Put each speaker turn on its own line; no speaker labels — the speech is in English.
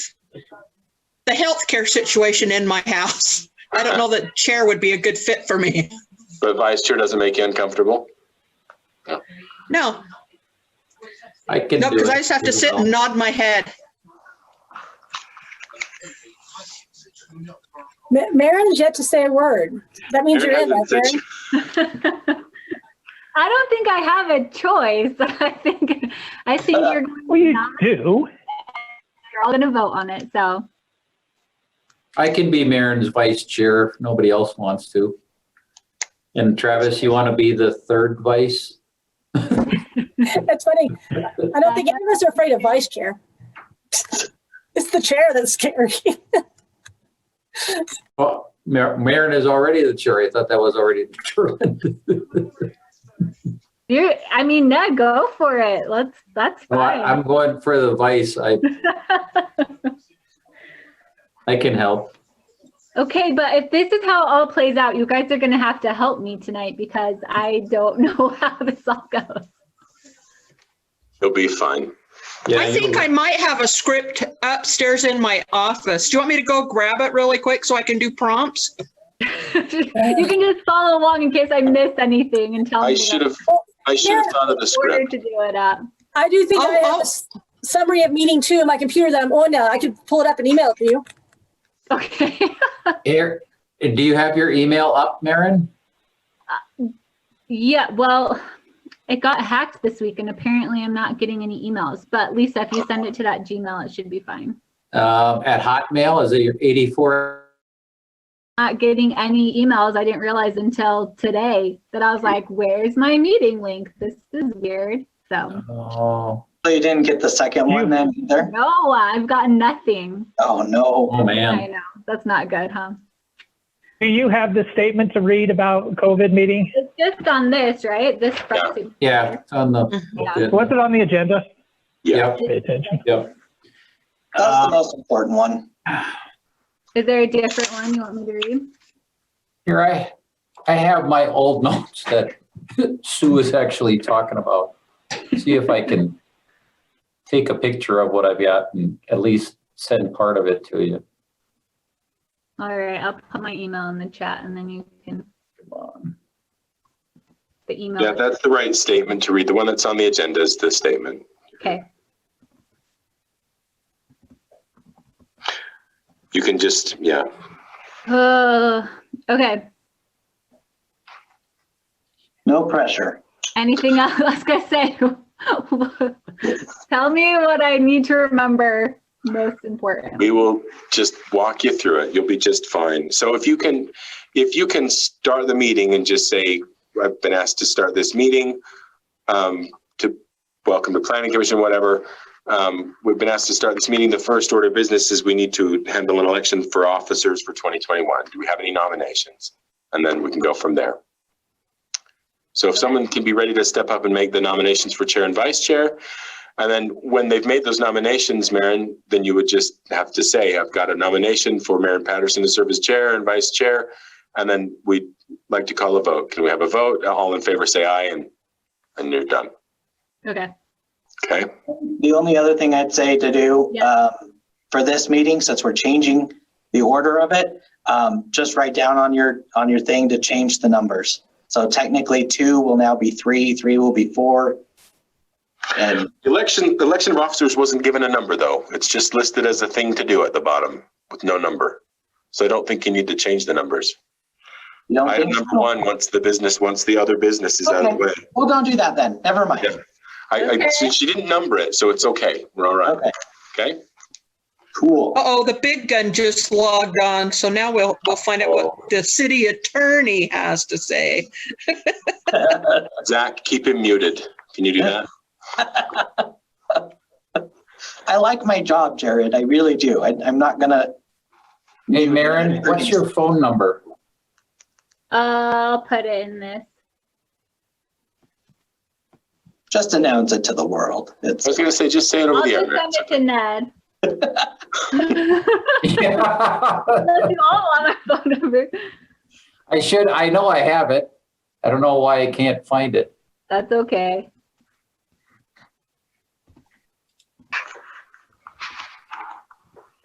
the healthcare situation in my house. I don't know that chair would be a good fit for me.
But vice chair doesn't make you uncomfortable?
No,
I can
no,
do
because I
it.
just have to sit and nod my head.
Ma- Marin's yet to say a word. That means you're in,
Aaron
right,
hasn't
Marin?
said-
I don't think I have a choice. I think I think you're
Well, you
not-
do.
you're all going to vote on it. So
I can be Marin's vice chair if nobody else wants to. And Travis, you want to be the third vice?
That's funny. I don't think any of us are afraid of vice chair. It's the chair that's scary.
Well, Mar- Marin is already the chair. I thought that was already determined.
you, I mean, no, go for it. Let's. That's
No, I-
fine.
I'm going for the vice. I, I can help.
okay, but if this is how it all plays out, you guys are going to have to help me tonight because I don't know how this all goes.
He'll be fine.
I think I might have a script upstairs in my office. Do you want me to go grab it really quick so I can do prompts?
you can just follow along in case I miss anything and tell
I
me
should
in
have, I should have thought of the
order
script.
to do it up.
I do think I
Oh,
have
oh.
a s- summary of meeting two in my computer that I'm on now. I could pull it up and email it to you.
Okay.
Here, do you have your email up, Marin?
Yeah, well, it got hacked this week and apparently I'm not getting any emails. But Lisa, if you send it to that Gmail, it should be fine.
Um, at Hotmail, is it your 84?
Not getting any emails. I didn't realize until today that I was like, where's my meeting link? This is weird. So,
Oh,
So you didn't get the second one then either?
no, I've gotten nothing.
Oh, no.
oh
I
man.
know. That's not good, huh?
Do you have the statement to read about COVID meeting?
It's just on this, right? This proxy.
Yeah, it's on
Yeah.
Was
the.
it on the agenda?
Yep,
Pay attention.
yep.
That's
Uh,
the most important one.
Is there a different one you want me to read?
Here, I, I have my old notes that Sue is actually talking about. See if I can take a picture of what I've got and at least send part of it to you.
All right, I'll put my email in the chat and then you can
Come on.
the email.
Yeah, that's the right statement to read. The one that's on the agenda is the statement.
Okay.
You can just, yeah.
Uh, okay.
No pressure.
Anything else? I was gonna say, tell me what I need to remember most important.
We will just walk you through it. You'll be just fine. So if you can, if you can start the meeting and just say, I've been asked to start this meeting, um, to welcome to planning commission, whatever. Um, we've been asked to start this meeting. The first order of business is we need to handle an election for officers for 2021. Do we have any nominations? And then we can go from there. So if someone can be ready to step up and make the nominations for chair and vice chair, and then when they've made those nominations, Marin, then you would just have to say, I've got a nomination for Marin Patterson to serve as chair and vice chair. And then we'd like to call a vote. Can we have a vote? All in favor, say aye and, and you're done.
Okay.
Okay?
The only other thing I'd say to do
Yeah.
um, for this meeting, since we're changing the order of it, um, just write down on your, on your thing to change the numbers. So technically two will now be three, three will be four. And
Election, election of officers wasn't given a number though. It's just listed as a thing to do at the bottom with no number. So I don't think you need to change the numbers.
you don't
Item
think,
number one, once the business, once the other business is out of the way.
well, don't do that then. Never mind.
Yeah. I, I, she- she didn't number it, so it's okay. We're all right.
Okay,
Okay?
cool.
Uh-oh, the big gun just logged on, so now we'll, we'll find out what the city attorney has to say.
Zach, keep him muted. Can you do that?
I like my job, Jared. I really do. I, I'm not gonna,
Hey, Marin, what's your phone number?
I'll put it in this.
just announce it to the world. It's.
I was gonna say, just say it over
I'll
the
just
air.
send it to Ned. Let's
I
do all on our phone number.
should, I know I have it. I don't know why I can't find it.
That's okay.